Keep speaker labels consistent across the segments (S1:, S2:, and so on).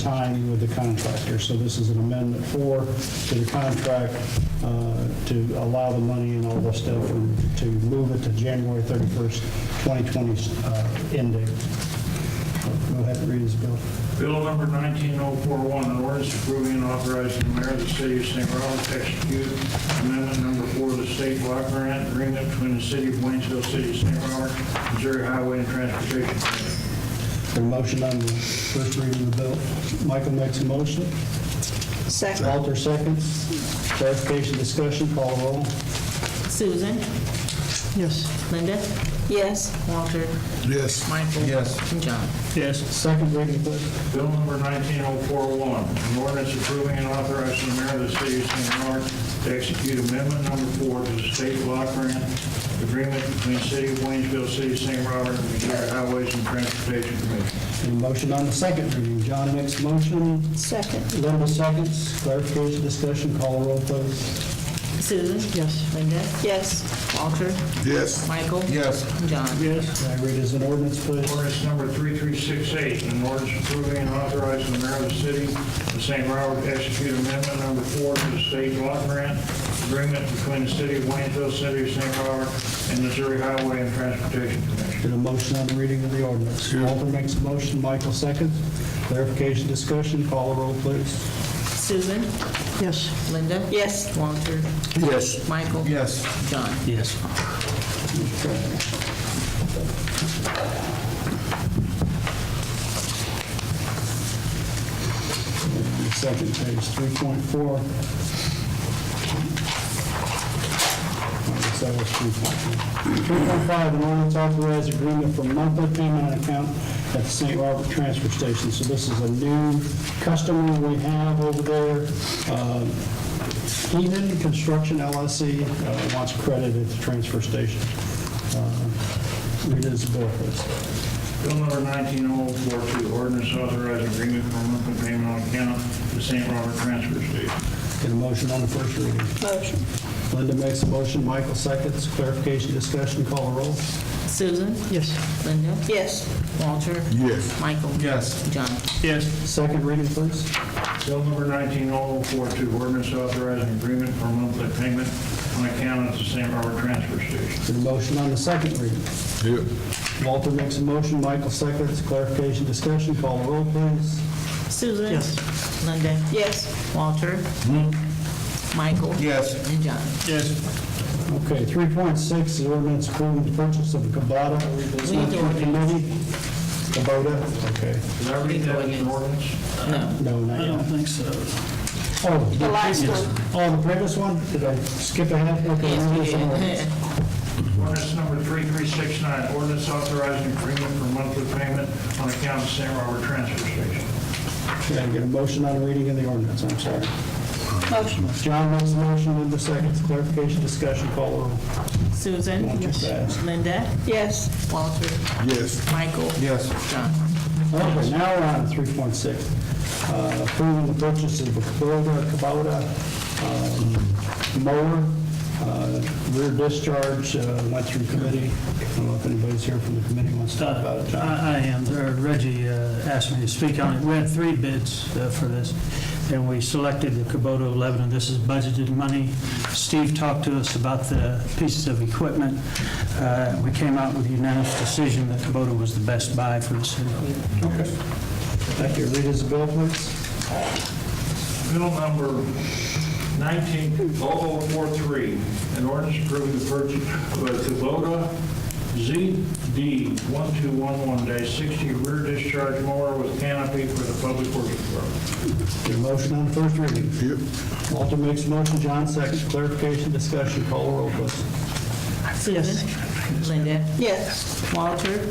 S1: tying with the contractor. So this is an amendment four to the contract uh, to allow the money and all this stuff and to move it to January 31st, 2020 uh, end date. Go ahead and read this bill.
S2: Bill number 19041, an ordinance approving and authorizing the mayor of the city of St. Robert to execute amendment number four of the state block grant agreement between the city of Waynesville, city of St. Robert, Missouri Highway and Transportation Commission.
S1: Got a motion on the first reading of the bill. Michael makes a motion.
S3: Second.
S1: Walter seconds. Clarification, discussion, call the roll.
S4: Susan?
S1: Yes.
S4: Linda?
S3: Yes.
S4: Walter?
S5: Yes.
S4: Michael?
S5: Yes.
S4: And John?
S1: Yes. Second reading, please.
S2: Bill number 19041, an ordinance approving and authorizing the mayor of the city of St. Robert to execute amendment number four to the state block grant agreement between the city of Waynesville, city of St. Robert, and Missouri Highways and Transportation Commission.
S1: Got a motion on the second reading. John makes a motion.
S3: Second.
S1: Linda seconds. Clarification, discussion, call the roll, please.
S4: Susan? Yes. Linda?
S3: Yes.
S4: Walter?
S5: Yes.
S4: Michael?
S5: Yes.
S4: And John?
S1: Yes. Can I read as an ordinance, please?
S2: Ordinance number 3368, an ordinance approving and authorizing the mayor of the city of St. Robert to execute amendment number four to the state block grant agreement between the city of Waynesville, city of St. Robert, and Missouri Highway and Transportation Commission.
S1: Got a motion on the reading of the ordinance. Walter makes a motion. Michael seconds. Clarification, discussion, call the roll, please.
S4: Susan?
S1: Yes.
S4: Linda?
S3: Yes.
S4: Walter?
S5: Yes.
S4: Michael?
S5: Yes.
S4: John?
S1: Yes. Second page, 3.4. So that was 3.5. 3.5, an ordinance authorize agreement for monthly payment on account at the St. Robert Transfer Station. So this is a new customer we have over there. Uh, Heaton Construction LLC uh, wants credit at the transfer station. Uh, Read this bill, please.
S2: Bill number 19042, ordinance authorizing agreement for monthly payment on account to St. Robert Transfer Station.
S1: Get a motion on the first reading.
S3: Motion.
S1: Linda makes a motion, Michael seconds. Clarification, discussion, call the roll.
S4: Susan? Yes. Linda?
S3: Yes.
S4: Walter?
S5: Yes.
S4: Michael?
S5: Yes.
S4: John?
S1: Second reading, please.
S2: Bill number 19042, ordinance authorizing agreement for monthly payment on account at the St. Robert Transfer Station.
S1: Get a motion on the second reading.
S5: Yeah.
S1: Walter makes a motion, Michael seconds, clarification, discussion, call the roll, please.
S4: Susan? Yes. Linda?
S3: Yes.
S4: Walter? Michael?
S5: Yes.
S4: And John?
S1: Okay, 3.6 is ordinance approving the purchase of a Kubota.
S4: We need the
S1: Committee. Kubota, okay.
S2: Did I read that as an ordinance?
S4: No.
S1: No, not yet. I don't think so.
S3: The
S1: Oh,
S3: last one.
S1: oh, the previous one, did I skip ahead? Okay,
S4: Yes,
S1: we'll
S4: we
S1: do some more.
S4: did.
S2: Ordinance number 3369, ordinance authorizing agreement for monthly payment on account of St. Robert Transfer Station.
S1: Okay, get a motion on the reading of the ordinance, I'm sorry.
S3: Motion.
S1: John makes a motion, Linda seconds, clarification, discussion, call the roll.
S4: Susan?
S1: Not too fast.
S4: Linda?
S3: Yes.
S4: Walter?
S5: Yes.
S4: Michael?
S5: Yes.
S4: John?
S1: Okay, now we're on 3.6. uh, Approving the purchase of a Kubota, Kubota um, mower. Uh, Rear discharge uh, went through committee. I don't know if anybody's here from the committee wants to talk about it. John.
S6: I I am. There, Reggie uh, asked me to speak on it. We had three bids uh, for this, and we selected the Kubota 11, and this is budgeted money. Steve talked to us about the pieces of equipment. Uh, We came out with a unanimous decision that Kubota was the best buy for the city.
S1: Okay. Thank you. Read his bill, please.
S2: Bill number 190043, an ordinance approving the purchase of a Kubota ZD1211-60 rear discharge mower with canopy for the public works department.
S1: Get a motion on the first reading. Walter makes a motion, John seconds. Clarification, discussion, call the roll, please.
S4: Susan? Linda?
S3: Yes.
S4: Walter?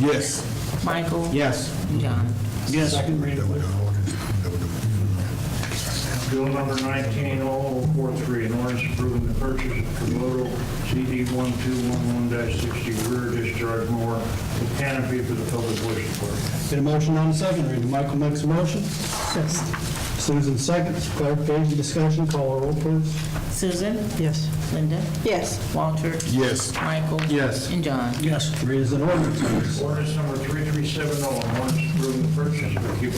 S5: Yes.
S4: Michael?
S5: Yes.
S4: John?
S1: Yes. Second reading, please.
S2: Bill number 190043, an ordinance approving the purchase of Kubota ZD1211-60 rear discharge mower with canopy for the public works department.
S1: Get a motion on the second reading. Michael makes a motion. Susan seconds. Clarification, discussion, call the roll, please.
S4: Susan? Yes. Linda?
S3: Yes.
S4: Walter?
S5: Yes.
S4: Michael?
S5: Yes.
S4: And John?
S1: Read as an ordinance, please.
S2: Ordinance number 3370, oh, an ordinance approving approving the purchase, but keep